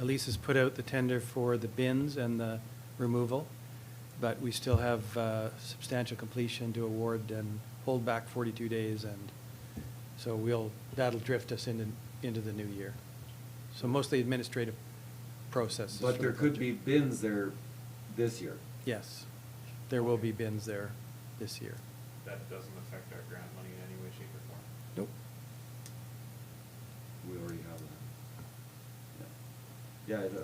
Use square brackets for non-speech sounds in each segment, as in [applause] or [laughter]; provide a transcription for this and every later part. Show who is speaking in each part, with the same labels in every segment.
Speaker 1: Elise has Uh, put out the tender for the bins and the removal, but we still have uh, substantial completion to award and hold back 42 days, and so we'll, that'll drift us into, into the new year. So mostly administrative processes. for
Speaker 2: But
Speaker 1: the
Speaker 2: there could
Speaker 1: project.
Speaker 2: be bins there this year.
Speaker 1: Yes, there will be bins there this year.
Speaker 3: That doesn't affect our grant money in any way, shape, or form.
Speaker 1: Nope.
Speaker 2: We already have that. Yeah, Yeah, the,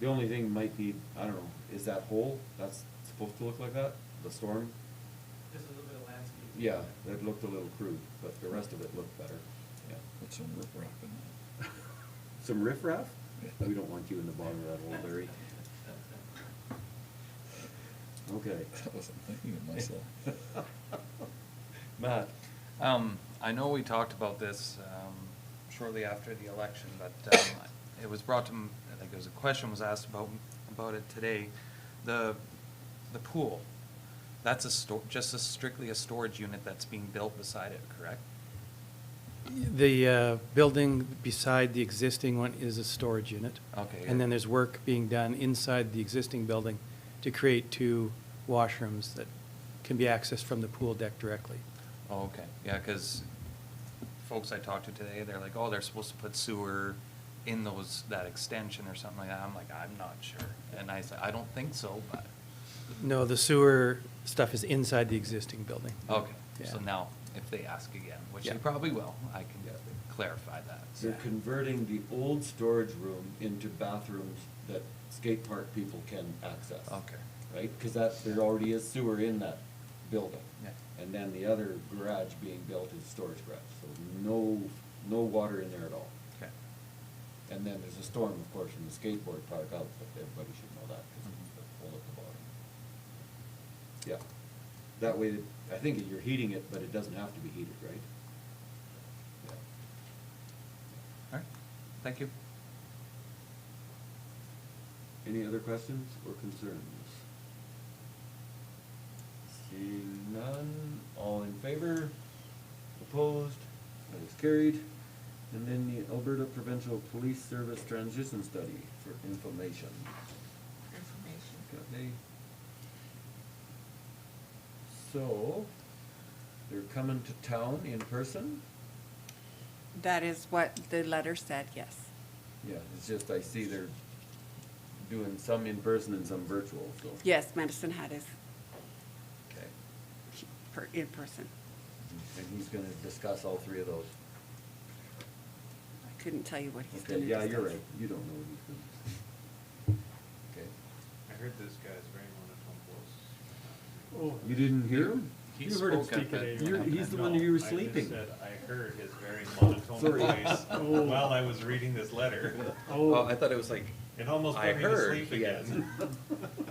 Speaker 2: the only thing might be, I don't know, is that hole, that's supposed to look like that, the storm?
Speaker 4: Just a little bit of landscaping.
Speaker 2: Yeah, that looked a little crude, but the rest of it looked better, yeah.
Speaker 1: [laughs]
Speaker 5: Put some riprap in
Speaker 2: Some riffraff? We don't want you in the bottom of that
Speaker 1: [laughs]
Speaker 2: hole,
Speaker 4: [laughs]
Speaker 2: Larry. [laughs] Okay.
Speaker 5: it. I wasn't thinking of
Speaker 6: [laughs]
Speaker 5: myself.
Speaker 2: [laughs] Matt,
Speaker 6: Um, I know we talked about this, um, shortly after the election, but, um, it was brought to, m- I think it was a question was asked about, about it today. The, the pool, that's a sto- just a strictly a storage unit that's being built beside it, correct?
Speaker 1: The uh, building beside the existing one is a storage unit.
Speaker 6: Okay.
Speaker 1: And then there's work being done inside the existing building to create two washrooms that can be accessed from the pool deck directly.
Speaker 6: Oh, okay, yeah, cause folks I talked to today, they're like, oh, they're supposed to put sewer in those, that extension or something like that. I'm like, I'm not sure. And I said, I don't think so, but,
Speaker 1: No, the sewer stuff is inside the existing building.
Speaker 6: okay.
Speaker 1: Yeah.
Speaker 6: So now, if they ask again, which
Speaker 1: Yeah.
Speaker 6: they probably will, I can
Speaker 2: Yeah.
Speaker 6: clarify that. so.
Speaker 2: they're converting the old storage room into bathrooms that skate park people can access.
Speaker 6: Okay.
Speaker 2: Right, cause that, there already is sewer in that building.
Speaker 6: Yeah.
Speaker 2: And then the other garage being built is storage garage, so no, no water in there at all.
Speaker 6: Okay.
Speaker 2: And then there's a storm, of course, from the skateboard park out, but everybody should know that, cause it's the hole at the bottom. Yeah, that way, I think you're heating it, but it doesn't have to be heated, right? Yeah.
Speaker 6: All right, thank you.
Speaker 2: Any other questions or concerns? Seeing none, all in favor, opposed, that is carried. And then the Alberta Provincial Police Service Transition Study for information.
Speaker 7: information.
Speaker 2: Okay. So, they're coming to town in person?
Speaker 7: That is what the letter said, yes.
Speaker 2: Yeah, it's just I see they're doing some in person and some virtual, so.
Speaker 7: Yes, Medicine Hat is
Speaker 2: Okay.
Speaker 7: per- in person.
Speaker 2: And he's gonna discuss all three of those.
Speaker 7: I couldn't tell you what he's
Speaker 2: Okay,
Speaker 7: gonna do.
Speaker 2: yeah, you're right, you don't know what he's gonna Okay.
Speaker 3: I heard this guy's very monotone voice.
Speaker 4: Oh.
Speaker 2: You didn't hear him?
Speaker 3: He
Speaker 2: You heard him
Speaker 3: spoke at
Speaker 2: speak
Speaker 3: the-
Speaker 2: today. You're- he's the one you were
Speaker 3: No, I just
Speaker 2: sleeping.
Speaker 3: said
Speaker 2: [laughs]
Speaker 3: I heard his very monotone
Speaker 2: Sorry.
Speaker 3: voice
Speaker 4: Oh.
Speaker 3: while I was reading this letter.
Speaker 6: Oh,
Speaker 4: Oh,
Speaker 6: I thought it was like,
Speaker 3: It almost
Speaker 6: I
Speaker 3: put me to
Speaker 6: heard
Speaker 3: sleep
Speaker 6: he had-
Speaker 3: again.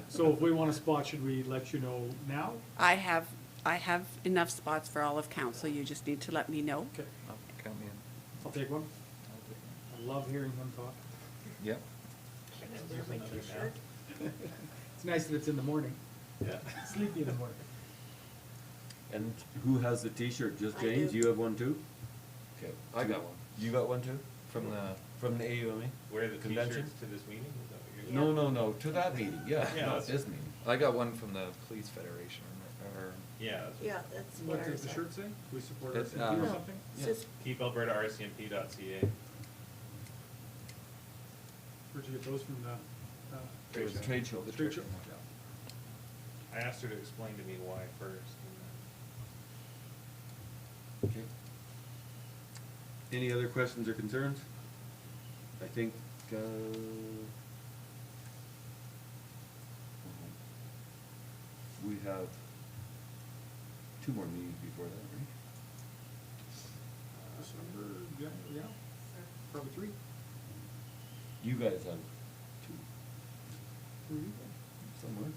Speaker 4: so if we want a spot, should we let you know now?
Speaker 7: I have, I have enough spots for all of council, you just need to let me know.
Speaker 4: Okay,
Speaker 6: oh, count me in.
Speaker 4: I'll take one. I love hearing him talk.
Speaker 6: Yep.
Speaker 3: There's another now.
Speaker 4: It's nice that it's in the morning.
Speaker 3: [laughs] Yeah.
Speaker 4: Sleepy in the morning.
Speaker 2: And who has the T-shirt, just
Speaker 7: I
Speaker 2: James,
Speaker 7: do.
Speaker 2: you have one too? Okay.
Speaker 6: I got one.
Speaker 2: You got one too?
Speaker 6: From the-
Speaker 2: From the AUMA?
Speaker 3: Wear the t-shirts
Speaker 2: Convention?
Speaker 3: to this meeting, is that what
Speaker 2: No,
Speaker 3: you're?
Speaker 2: no, no, to that meeting, yeah,
Speaker 3: Yeah,
Speaker 2: not
Speaker 3: that's-
Speaker 2: this meeting.
Speaker 6: I got one from the Police Federation or,
Speaker 3: Yeah. that's what-
Speaker 4: What does the shirt say? We support
Speaker 6: It's,
Speaker 4: RCMP
Speaker 6: um,
Speaker 4: or
Speaker 7: uh,
Speaker 4: something?
Speaker 2: Yeah.
Speaker 3: Keep Alberta RCMP.ca.
Speaker 4: Where'd you get those from the, uh?
Speaker 2: It was a trade show.
Speaker 4: The trade show?
Speaker 3: I asked her to explain to me why first. and
Speaker 2: Okay. Any other questions or concerns? I think, uh. We have two more meetings before that, right?
Speaker 4: December, yeah, yeah, probably three.
Speaker 2: You guys have two
Speaker 4: Three.
Speaker 2: somewhere.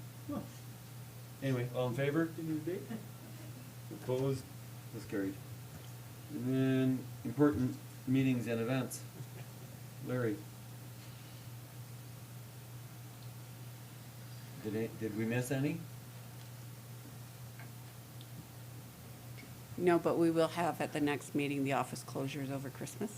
Speaker 2: Anyway, all in favor?
Speaker 4: Can you date?
Speaker 2: Opposed? That's carried. And then important meetings and events. Larry? Did it, did we miss any?
Speaker 7: No, but we will have at the next meeting the office closures over Christmas.